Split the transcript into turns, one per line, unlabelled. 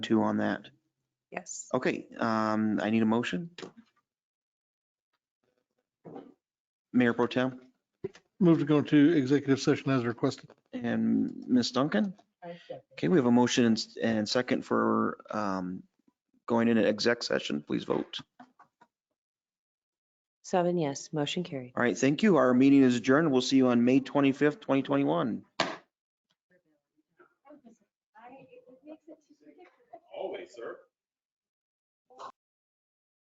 two on that.
Yes.
Okay, um, I need a motion. Mayor Pro Tem
Move to go into executive session as requested.
and Ms. Duncan. Okay, we have a motion and s- and second for um, going into exec session. Please vote.
Seven yes, motion carried.
All right, thank you. Our meeting is adjourned. We'll see you on May 25th, 2021.
Always, sir.